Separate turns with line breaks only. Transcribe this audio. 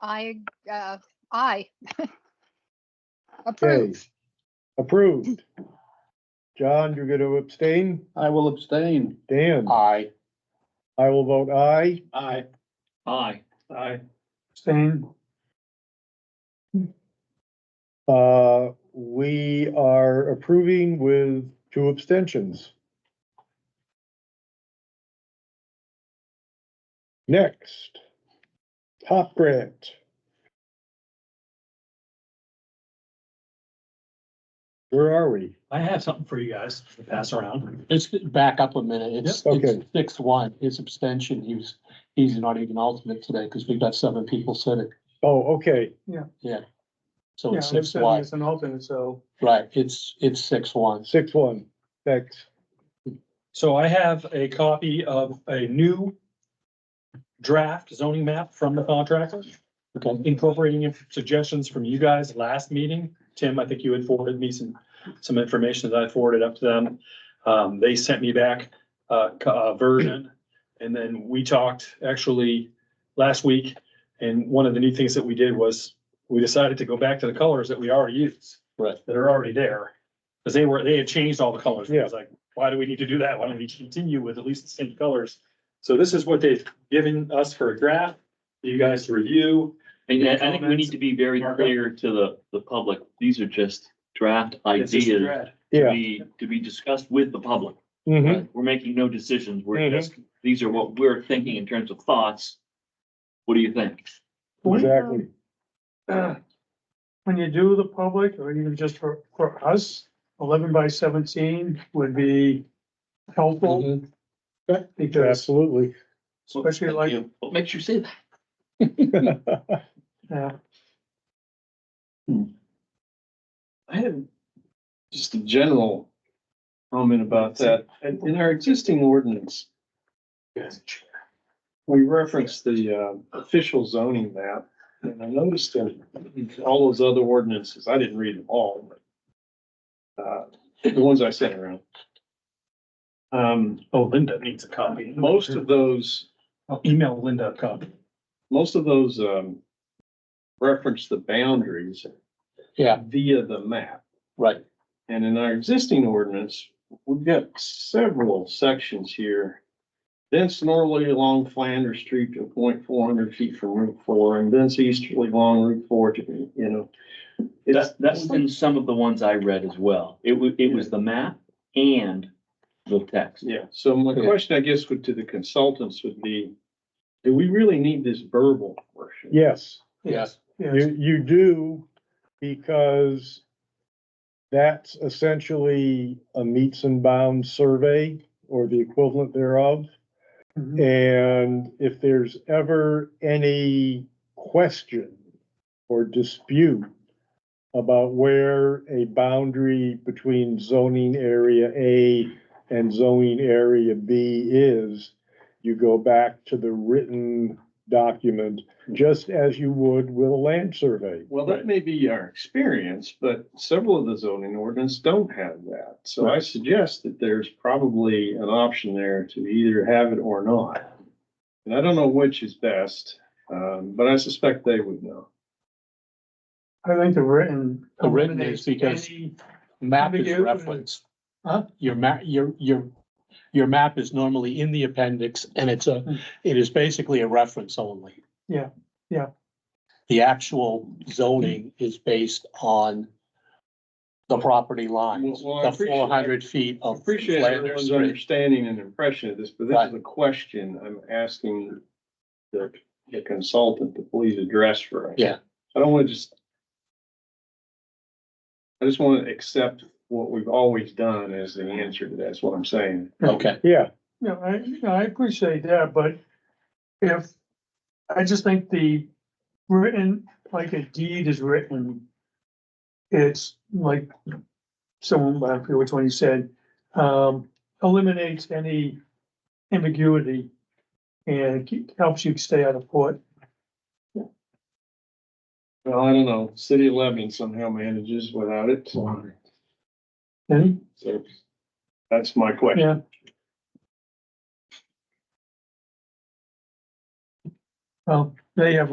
I, uh, I.
Okay,
Approved.
Approved. John, you're gonna abstain?
I will abstain.
Dan?
Aye.
I will vote aye.
Aye. Aye. Aye.
Abstain. Uh, we are approving with two abstentions. Next, top grant. Where are we?
I have something for you guys to pass around.
It's back up a minute. It's,
Yep. Okay.
it's six one, his abstention, he's, he's not even alternate today because we've got seven people sitting.
Oh, okay,
So
Yeah,
it's
I'm
six
serving
one,
as an alternate, so
right, it's, it's six one.
six one, thanks.
So I have a copy of a new draft zoning map from the contractor,
Okay,
incorporating suggestions from you guys last meeting. Tim, I think you had forwarded me some, some information that I forwarded up to them. Um, they sent me back a, co- a version. And then we talked actually last week. And one of the neat things that we did was we decided to go back to the colors that we already used.
Right.
That are already there. Cause they were, they had changed all the colors. It
Yeah.
was like, why do we need to do that? Why don't we continue with at least the same colors? So this is what they've given us for a draft, for you guys to review.
And I I think we
Comments?
need to be very
Mark?
clear to the, the public, these are just draft
It's just a
ideas
draft.
to
Yeah,
be, to be discussed with the public.
Mm-hmm.
mhm,
We're making no decisions, we're
Mhm.
just, these are what we're thinking in terms of thoughts. What do you think?
exactly.
uh, when you do the public or even just for, for us, eleven by seventeen would be helpful because,
Mm-hmm. Absolutely.
Especially like-
Thank you. What makes you say that?
yeah,
I have just a general comment about that. In in our existing ordinance, we referenced the uh, official zoning map. And I noticed that in all those other ordinances, I didn't read them all, but uh, the ones I sent around. Um,
Oh, Linda needs a copy.
most of those,
I'll Oh, Email Linda a copy.
most of those um, reference the boundaries
yeah,
via the map.
right.
And in our existing ordinance, we've got several sections here. Thence northerly along Flanders Street to a point four hundred feet from Route Four, and thence easterly along Route Four to, you know. It's,
That's, that's in some of the ones I read as well. It was, it was the map and the text.
yeah, so my
Yeah.
question, I guess, would to the consultants would be, do we really need this verbal portion?
Yes,
Yes.
yes,
you, you do, because that's essentially a meets and bounds survey or the equivalent thereof.
Mhm.
And if there's ever any question or dispute about where a boundary between zoning area A and zoning area B is, you go back to the written document, just as you would with a land survey.
Well, that may be our experience, but several of the zoning ordinance don't have that. So I suggest that there's probably an option there to either have it or not. And I don't know which is best, um, but I suspect they would know.
I think the written.
The written is because-
eliminates
Map is
Ambiguous.
referenced.
Huh?
Your map, your, your, your map is normally in the appendix and it's a, it is basically a reference only.
Hmm. Yeah, yeah.
The actual zoning is based on the property lines,
Well, well,
the
I appreciate-
four hundred feet
I
of.
appreciate
Flanders
everyone's
Street.
understanding and impression of this, but this is
Right.
a question I'm asking the the consultant to please address for. us.
Yeah.
I don't want to just. I just want to accept what we've always done as the answer to that. That's what I'm saying.
Okay,
Yeah,
No, I, no, I appreciate that, but if, I just think the written, like a deed is written. It's like, someone, I forget which one you said, um, eliminates any ambiguity. And keep- helps you stay out of court.
Well, I don't know. City of Lebanon somehow manages without it. So
And,
that's my question.
yeah. Well, they have